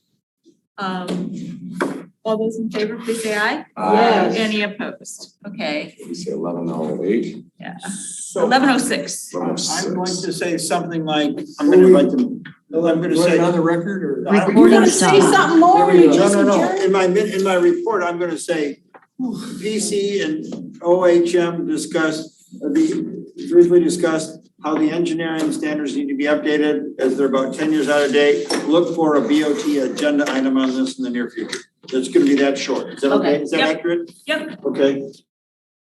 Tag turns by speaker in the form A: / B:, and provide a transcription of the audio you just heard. A: Um, all those in favor, please say aye.
B: Yes.
A: Any opposed? Okay,
C: We say eleven oh eight,
A: yeah,
D: So
A: eleven oh six.
C: eleven oh
D: I'm going
C: six.
D: to say something like, I'm gonna write them, no, I'm gonna say.
B: the record or?
D: I don't-
E: Recording
B: There
E: stop.
B: we
E: something
B: go.
D: No, no, no, in my, min- in my report, I'm gonna say, VC and OHM discussed, uh, the- briefly discussed how the engineering standards need to be updated as they're about ten years out of date. Look for a BOT agenda item on this in the near future. It's gonna be that short. Is that okay?
A: Okay.
D: Is that
A: Yep.
D: accurate?
A: Yep.
D: Okay,